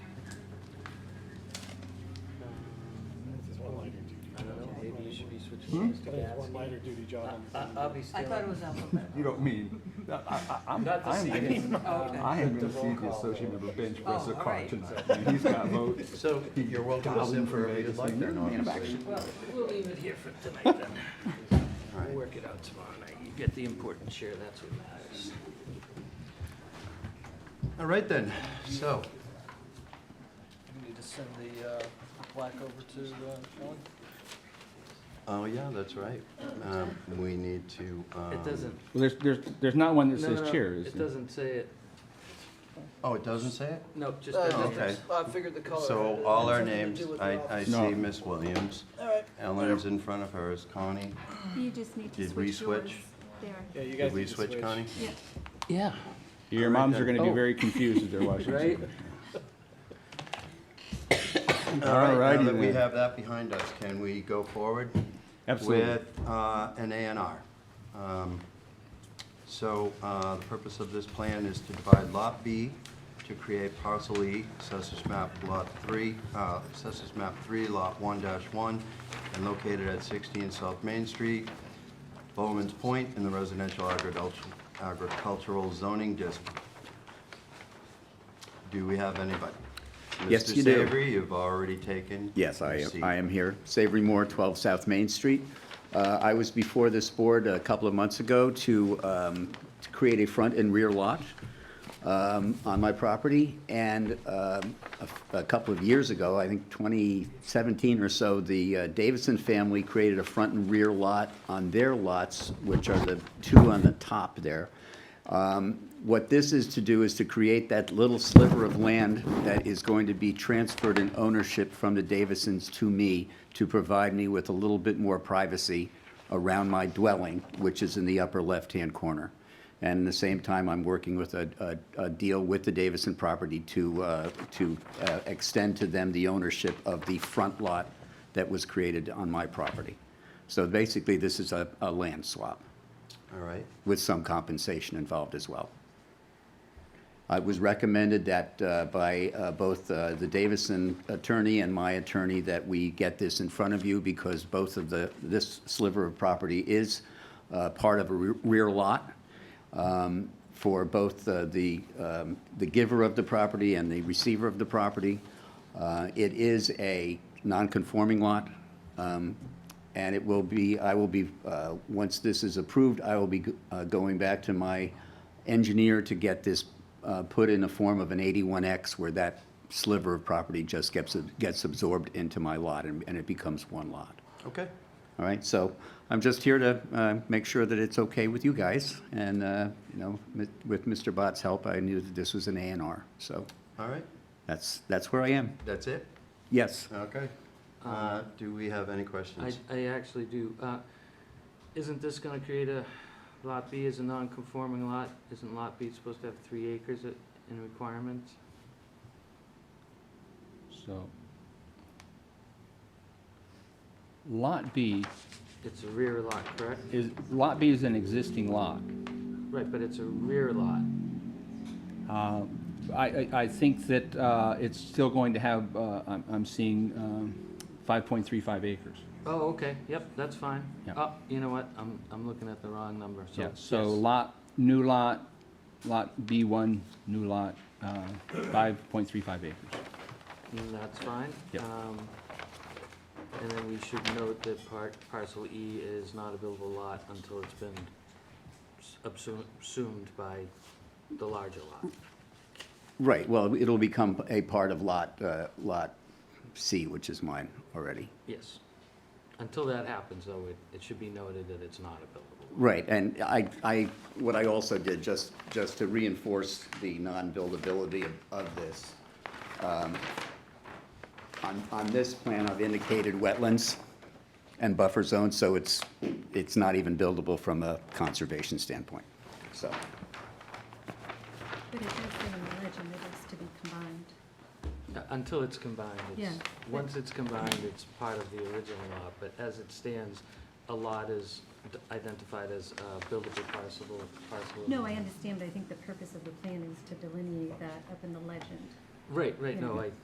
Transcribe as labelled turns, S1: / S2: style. S1: I
S2: switch names to
S1: think it's one
S2: Gatsby.
S1: lighter duty job. on the-
S2: I- I'll be
S3: I thought it
S2: still,
S3: was alphabetical.
S4: You don't mean, I, I, I'm,
S2: Not the
S4: I am
S2: seating.
S4: gonna,
S3: Oh, okay.
S4: I am
S2: The
S4: gonna
S2: roll
S4: see the
S2: call
S4: associate
S2: vote.
S4: member bench
S3: Oh,
S4: press a
S3: all
S4: car
S3: right.
S4: tonight. I mean, He's got votes.
S5: So
S4: He
S5: you're welcome to
S4: dialed in
S5: sit
S4: for
S5: wherever
S4: vacancy.
S5: you'd like
S4: You're
S5: there,
S4: the man of
S5: obviously.
S4: action.
S2: well, we'll leave it here for tonight then.
S5: All right.
S2: We'll work it out tomorrow night. You get the important share, that's what matters.
S5: All right then, so,
S6: You need to send the uh, plaque over to uh, Shelley?
S5: oh yeah, that's right. Um, We need to. um,
S2: It doesn't,
S4: Well, there's, there's, there's not one
S2: no,
S4: that
S2: no,
S4: says
S2: no,
S4: chair, is
S2: it
S4: there?
S2: doesn't say it.
S5: Oh, it doesn't say it?
S2: No, just
S6: Uh,
S2: the
S5: okay.
S2: numbers.
S6: I figured the color.
S5: So
S6: had
S5: all our
S6: something to
S5: names,
S6: do with
S5: I,
S6: the
S5: I
S4: No.
S5: see Miss Williams.
S6: All right.
S5: Ellen's in front of hers, Connie.
S7: You just need to
S5: Did we
S7: switch yours
S5: switch?
S1: Yeah,
S7: there.
S1: you guys
S5: Did we
S1: need to
S5: switch, Connie?
S7: Yeah,
S2: Yeah.
S4: Your moms are gonna be
S2: Oh.
S4: very confused if they're watching.
S2: Right?
S5: All right, now
S4: Alrighty
S5: that we
S4: then.
S5: have that behind us, can we go forward?
S4: Absolutely.
S5: With uh, an A and R. Um, So uh, the purpose of this plan is to divide Lot B to create parcel E, Assessors map Lot 3, uh, Assessors map 3, Lot 1-1, and located at 16 South Main Street, Bowman's Point, in the residential agricultu- agricultural zoning district. Do we have anybody?
S8: Yes, you do.
S5: Mr. Savory, you've already taken.
S8: Yes, I
S5: your
S8: am,
S5: seat.
S8: I am here. Savory Moore, 12 South Main Street. Uh, I was before this board a couple of months ago to, um, to create a front and rear lot um, on my property, and um, a f- a couple of years ago, I think 2017 or so, the uh, Davidson family created a front and rear lot on their lots, which are the two on the top there. Um, What this is to do is to create that little sliver of land that is going to be transferred in ownership from the Davisons to me to provide me with a little bit more privacy around my dwelling, which is in the upper left-hand corner. And at the same time, I'm working with a, a, a deal with the Davison property to, uh, to uh, extend to them the ownership of the front lot that was created on my property. So basically, this is a, a land swap
S5: All right.
S8: with some compensation involved as well. Uh, It was recommended that uh, by uh, both uh, the Davison attorney and my attorney that we get this in front of you because both of the, this sliver of property is uh, part of a re- rear lot um, for both uh, the, um, the giver of the property and the receiver of the property. Uh, It is a non-conforming lot, um, and it will be, I will be, uh, once this is approved, I will be uh, going back to my engineer to get this uh, put in the form of an 81X where that sliver of property just gets, gets absorbed into my lot and and it becomes one lot.
S5: Okay.
S8: All right, so I'm just here to uh, make sure that it's okay with you guys. And, uh, you know, mi- with Mr. Bott's help, I knew that this was an A and R. So
S5: All right.
S8: that's, that's where I am.
S5: That's it?
S8: Yes.
S5: Okay. Uh, Do we have any
S2: I,
S5: questions?
S2: I actually do. Uh, Isn't this gonna create a, Lot B is a non-conforming lot? Isn't Lot B supposed to have three acres at- in requirements?
S4: So. Lot B
S2: It's a rear lot, correct?
S4: is, Lot B is an existing lot.
S2: Right, but it's a rear lot.
S4: Uh, I, I, I think that uh, it's still going to have, uh, I'm, I'm seeing um, 5.35 acres.
S2: Oh, okay, yep, that's fine.
S4: Yeah.
S2: Oh, you know what, I'm, I'm looking at the wrong number, so.
S4: Yeah, so
S2: yes.
S4: lot, new lot, lot B1, new lot, uh, 5.35 acres.
S2: Mm, That's fine.
S4: Yep.
S2: Um, And then we should note that part, parcel E is not a buildable lot until it's been s- absum- assumed by the larger
S4: Mm.
S2: lot.
S8: Right, well, it'll become a part of Lot, uh, Lot C, which is mine already.
S2: Yes. Until that happens, though, it, it should be noted that it's not a buildable.
S8: Right, and I, I, what I also did, just, just to reinforce the non-buildability of, of this, um, on, on this plan, I've indicated wetlands and buffer zones, so it's, it's not even buildable from a conservation standpoint, so.
S7: but it does say in the legend it is to be combined.
S2: Uh, Until it's combined, it's,
S7: Yeah.
S2: once it's combined, it's part of the original lot, but as it stands, a lot is d- identified as a buildable parcel, parcel.
S7: No, I understand, but I think the purpose of the plan is to delineate that up in the legend.
S2: Right, right, no,
S7: Yeah.
S2: I,